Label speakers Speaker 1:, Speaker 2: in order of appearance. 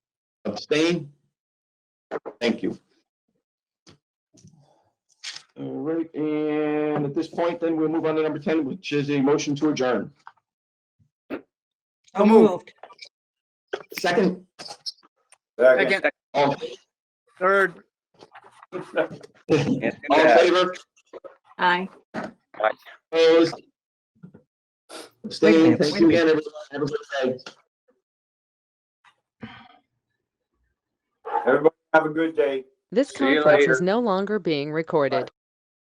Speaker 1: Abstain? Thank you.
Speaker 2: All right, and at this point, then we'll move on to number ten, which is a motion to adjourn.
Speaker 3: So moved.
Speaker 1: Second?
Speaker 4: Second,
Speaker 1: All
Speaker 4: third.
Speaker 1: all in favor?
Speaker 3: Aye.
Speaker 1: Opposed? Abstain?
Speaker 3: minute,
Speaker 1: Thank
Speaker 3: wait
Speaker 1: you
Speaker 3: a
Speaker 1: again, everyone. Have a good day.
Speaker 5: Everybody have a good day.
Speaker 6: This
Speaker 4: See you
Speaker 6: conference
Speaker 4: later.
Speaker 6: is no longer being recorded.